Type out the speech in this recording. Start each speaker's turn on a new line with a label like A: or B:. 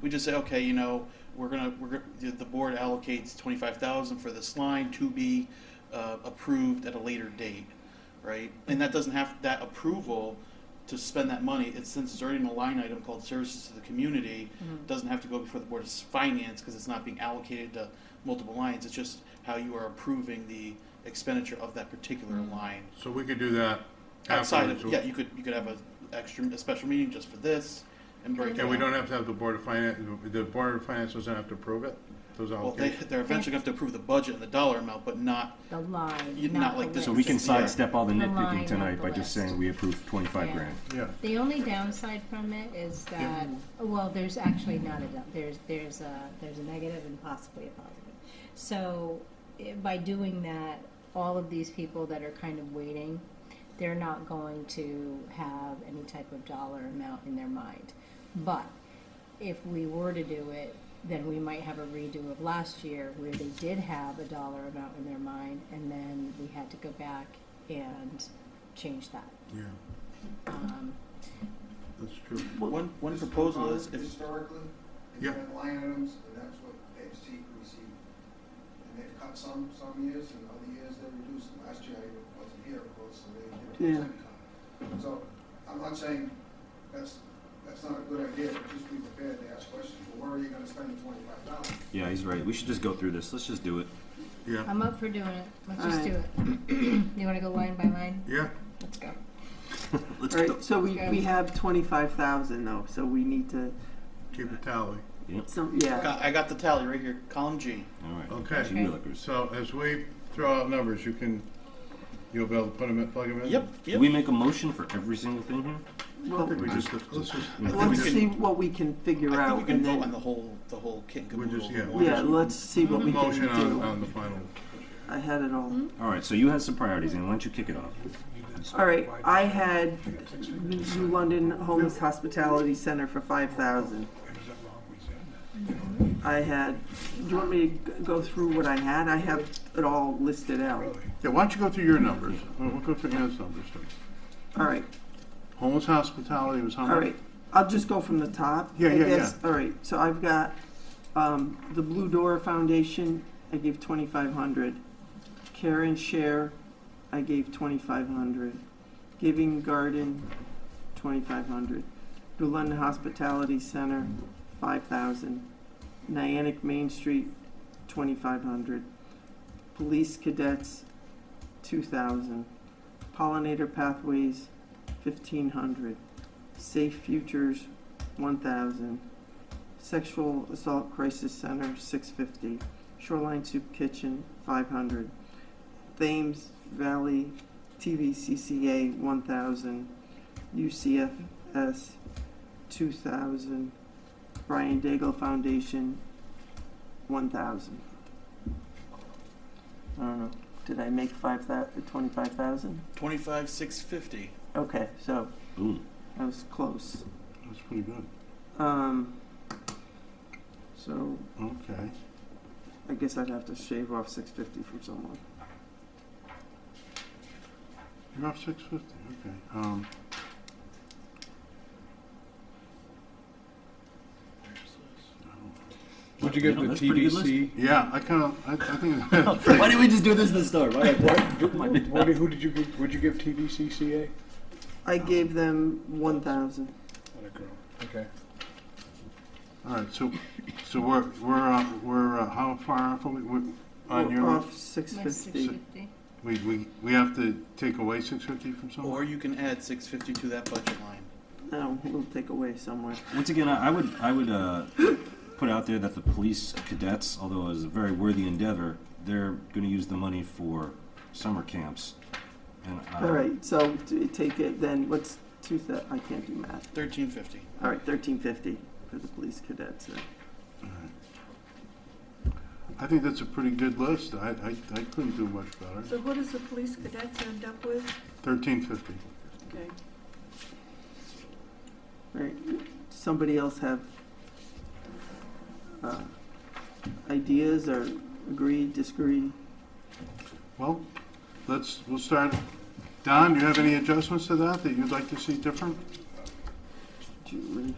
A: we just say, okay, you know, we're gonna, we're, gonna- the the board allocates twenty-five thousand for this line to be, uh, approved at a later date, right? And that doesn't have, that approval to spend that money, it's since it's already in a line item called services to the community, doesn't have to go before the board of finance, cause it's not being allocated to multiple lines, it's just how you are approving the expenditure of that particular line.
B: So we could do that
A: Outside
B: afterwards.
A: of, yeah, you could, you could have a extra, a special meeting just for this and break it
B: And we
A: out.
B: don't have to have the Board of Finance, the Board of Finance doesn't have to approve it, those
A: Well, they,
B: allocations?
A: they're eventually gonna have to approve the budget and the dollar amount, but not,
C: The line,
A: You- not
C: not the
A: like this
C: list.
D: So we can sidestep all the
C: The line,
D: nitpicking
C: not
D: tonight
C: the
D: by just
C: list.
D: saying we approve twenty-five
C: Yeah.
D: grand.
B: Yeah,
C: The only downside from it is that, well, there's actually not a, down- there's, there's a, there's a negative and possibly a positive. So i- by doing that, all of these people that are kind of waiting, they're not going to have any type of dollar amount in their mind. But if we were to do it, then we might have a redo of last year where they did have a dollar amount in their mind and then we had to go back and change that.
B: yeah,
C: Um,
B: that's true.
A: one, one
E: This is
A: proposal
E: common
A: is if.
E: Historically,
B: Yeah.
E: they've been line items, and that's what they've seen, received. And they've cut some, some years, and other years they reduced. Last year I wasn't here, of course, so they did a percent cut. So I'm not saying that's, that's not a good idea, but just be prepared to ask questions. Well, where are you gonna spend the twenty-five dollars?
F: Yeah, he's right. We should just go through this. Let's just do it.
B: Yeah,
C: I'm up for doing it. Let's just do it. you want to go line by line?
B: yeah,
C: Let's go.
F: Let's
G: All
F: go.
G: right, so we,
C: Okay.
G: we have twenty-five thousand though, so we need to,
B: keep a tally.
G: so, yeah.
A: Got- I got the tally right here, column G.
F: All right.
B: Okay.
F: Gee willikers.
B: So as we throw out numbers, you can, you'll be able to put them in, plug them in?
A: Yep,
F: Do
A: yep.
F: we make a motion for every single thing here?
G: Well,
B: We just, let's just,
A: think we
G: let's
A: can-
G: see what we can figure
A: I think
G: out
A: we can
G: and
A: vote on
G: then,
A: the whole, the whole kit and
B: We're just-
A: caboodle.
B: yeah, we're
G: yeah, let's see what we can
B: motion on,
A: uh,
G: do.
B: on the final.
G: I had it all.
F: All right. So you had some priorities, and why don't you kick it off?
G: All right, I had New London Homeless Hospitality Center for five thousand. I had, do you want me to g- go through what I had? I have it all listed out.
B: Yeah, why don't you go through your numbers? We'll we'll go through Ann's numbers. too.
G: All right,
B: Homeless hospitality was how much?
G: All right, I'll just go from the top.
B: Yeah,
G: I
B: yeah,
G: guess.
B: yeah.
G: All right, so I've got, um, the Blue Door Foundation, I gave twenty-five hundred. Care and Share, I gave twenty-five hundred. Giving Garden, twenty-five hundred. New London Hospitality Center, five thousand. Niantic Main Street, twenty-five hundred. Police Cadets, two thousand. Pollinator Pathways, fifteen hundred. Safe Futures, one thousand. Sexual Assault Crisis Center, six fifty. Shoreline Soup Kitchen, five hundred. Thames Valley TVCCA, one thousand. UCFS, two thousand. Brian Daigle Foundation, one thousand. I don't know, did I make five thou- twenty-five thousand?
A: Twenty-five, six fifty.
G: Okay, so
F: Boom.
G: I was close.
B: That's pretty good.
G: Um, so
B: Okay.
G: I guess I'd have to shave off six fifty from someone.
B: You're off six fifty, okay. Um,
H: Would you
F: You
H: get
F: know,
H: the
F: that's a pretty good
H: TVC?
B: yeah, I kind of, I, I think that's
F: Why didn't we just do this this time? Why, why,
H: What did- Who did you, give- would you give TVCCA?
G: I gave them one thousand.
H: Okay.
B: All right, so, so we're, we're, uh, we're, uh, how far off are we, we're, on your,
G: off six
B: Six
G: fifty.
B: fifty. we, we, we have to take away six fifty from
A: Or
B: somewhere?
A: you can add six fifty to that budget line.
G: No, we'll take away somewhere.
F: Once again, I, I would I would uh, put out there that the police cadets, although it was a very worthy endeavor, they're going to use the money for summer camps. And
B: Uh-huh.
F: uh,
G: All right, so t- take it then. What's two thou- I can't do math.
A: Thirteen fifty.
G: All right, thirteen fifty for the police cadets. then.
B: I think that's a pretty good list, I, I, I couldn't do much better.
I: So what does the police cadets end up with?
B: Thirteen fifty.
I: Okay.
G: All right, somebody else have uh, ideas or agree, disagree?
B: Well, let's, we'll start, Don, do you have any adjustments to that that you'd like to see different?
G: Julie,